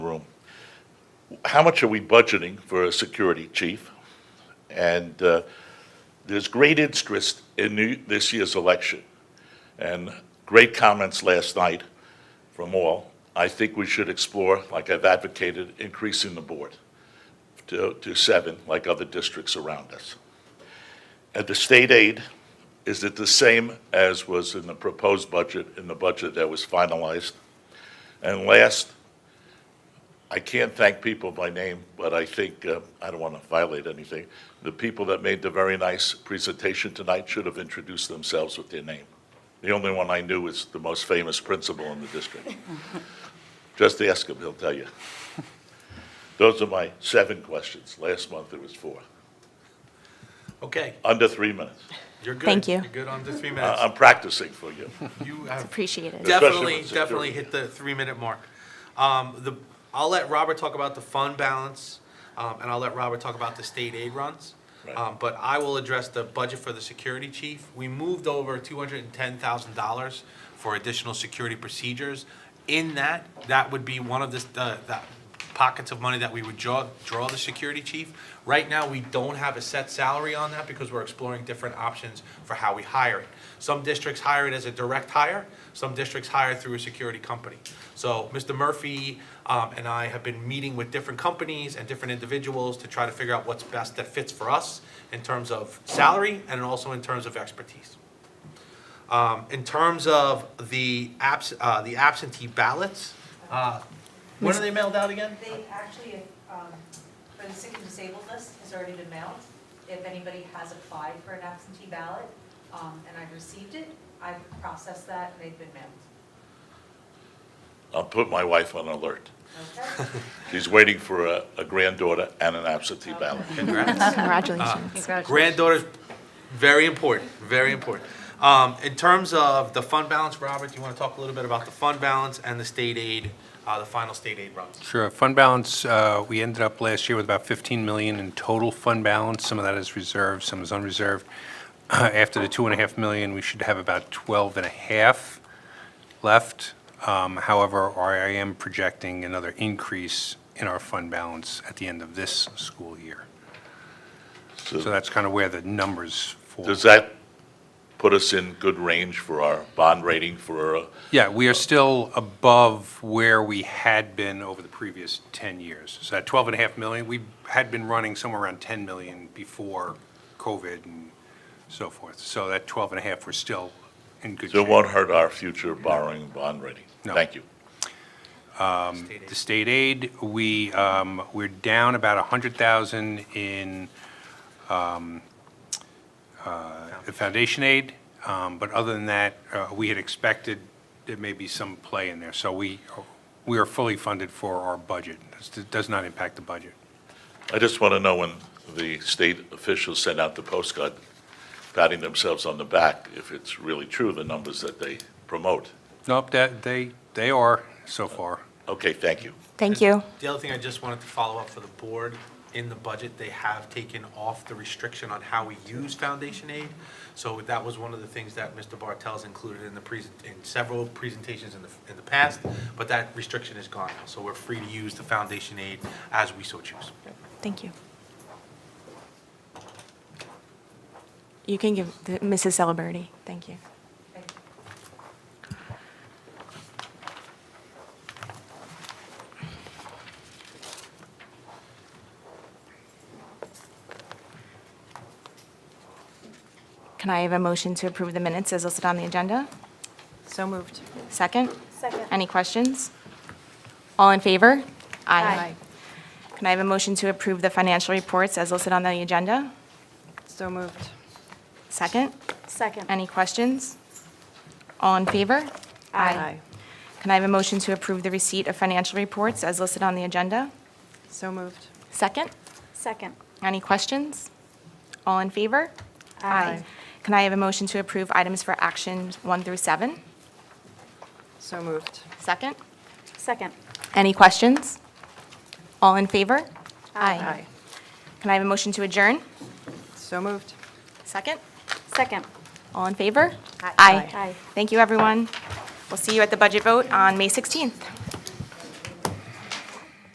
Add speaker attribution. Speaker 1: how much are we budgeting for a security chief? And uh, there's great interest in new- this year's election, and great comments last night from all. I think we should explore, like I've advocated, increasing the board to to seven, like other districts around us. And the state aid, is it the same as was in the proposed budget, in the budget that was finalized? And last, I can't thank people by name, but I think, uh, I don't want to violate anything, the people that made the very nice presentation tonight should have introduced themselves with their name. The only one I knew is the most famous principal in the district. Just ask him, he'll tell you. Those are my seven questions. Last month it was four.
Speaker 2: Okay,
Speaker 1: Under three minutes.
Speaker 2: you're good.
Speaker 3: Thank you.
Speaker 2: You're good on the three
Speaker 1: I-
Speaker 2: minutes.
Speaker 1: I'm practicing for you.
Speaker 2: You have
Speaker 3: Appreciate it.
Speaker 1: Uh, Especially
Speaker 2: definitely,
Speaker 1: with security.
Speaker 2: definitely hit the three-minute mark. Um, the, I'll let Robert talk about the fund balance, um, and I'll let Robert talk about the state aid runs.
Speaker 1: Right.
Speaker 2: Um, but I will address the budget for the security chief. We moved over two hundred and ten thousand dollars for additional security procedures. In that, that would be one of the, the, the pockets of money that we would draw, draw the security chief. Right now, we don't have a set salary on that because we're exploring different options for how we hire it. Some districts hire it as a direct hire, some districts hire through a security company. So Mr. Murphy um, and I have been meeting with different companies and different individuals to try to figure out what's best that fits for us in terms of salary and also in terms of expertise. Um, In terms of the abs, uh, the absentee ballots, uh, when are they mailed out again?
Speaker 4: They actually, um, for the sick and disabled list has already been mailed. If anybody has applied for an absentee ballot, um, and I've received it, I've processed that, and they've been mailed.
Speaker 1: I'll put my wife on alert.
Speaker 4: Okay?
Speaker 1: She's waiting for a a granddaughter and an absentee ballot.
Speaker 2: Congrats.
Speaker 3: Congratulations.
Speaker 2: Granddaughter's very important, very important. Um, in terms of the fund balance, Robert, do you want to talk a little bit about the fund balance and the state aid, uh, the final state aid runs?
Speaker 5: Sure. Fund balance, uh, we ended up last year with about 15 million in total fund balance. Some of that is reserved, some is unreserved. After the two and a half million, we should have about 12 and a half left. Um, However, I am projecting another increase in our fund balance at the end of this school year. So
Speaker 1: So
Speaker 5: that's kind of where the numbers fall.
Speaker 1: Does that put us in good range for our bond rating for, uh,
Speaker 5: Yeah, we are still above where we had been over the previous 10 years. So that 12 and a half million, we had been running somewhere around 10 million before COVID and so forth. So that 12 and a half, we're still in good
Speaker 1: so
Speaker 5: shape.
Speaker 1: it won't hurt our future borrowing bond rating?
Speaker 5: No.
Speaker 1: Thank you.
Speaker 2: State
Speaker 5: The
Speaker 2: aid.
Speaker 5: state aid, we, um, we're down about 100,000 in um, uh, the foundation aid, um, but other than that, uh, we had expected there may be some play in there. So we, we are fully funded for our budget. It does not impact the budget.
Speaker 1: I just want to know when the state officials send out the postcard patting themselves on the back, if it's really true, the numbers that they promote.
Speaker 5: Nope, that, they, they are so far.
Speaker 1: Okay, thank you.
Speaker 3: Thank you.
Speaker 2: The other thing I just wanted to follow up for the board, in the budget, they have taken off the restriction on how we use foundation aid. So that was one of the things that Mr. Bartels included in the present, in several presentations in the, in the past, but that restriction is gone now. So we're free to use the foundation aid as we so choose.
Speaker 3: Thank you. You can give the- Mrs. Celebrity. Thank you.
Speaker 4: Thank you.
Speaker 3: Can I have a motion to approve the minutes as listed on the agenda? So moved. Second? Second. Any questions? All in favor? Aye. Can I have a motion to approve the financial reports as listed on the agenda?
Speaker 6: So moved.
Speaker 3: Second?
Speaker 6: Second.
Speaker 3: Any questions? All in favor? Can I have a motion to approve the receipt of financial reports as listed on the agenda?
Speaker 6: So moved.
Speaker 3: Second?
Speaker 6: Second.
Speaker 3: Any questions? All in favor? Can I have a motion to approve items for action one through seven?
Speaker 6: So moved.
Speaker 3: Second?
Speaker 6: Second.
Speaker 3: Any questions? All in favor? Can I have a motion to adjourn?
Speaker 6: So moved.
Speaker 3: Second?
Speaker 6: Second.
Speaker 3: All in favor?
Speaker 6: Aye. Aye.
Speaker 3: Thank you, everyone. We'll see you at the budget vote on May 16th.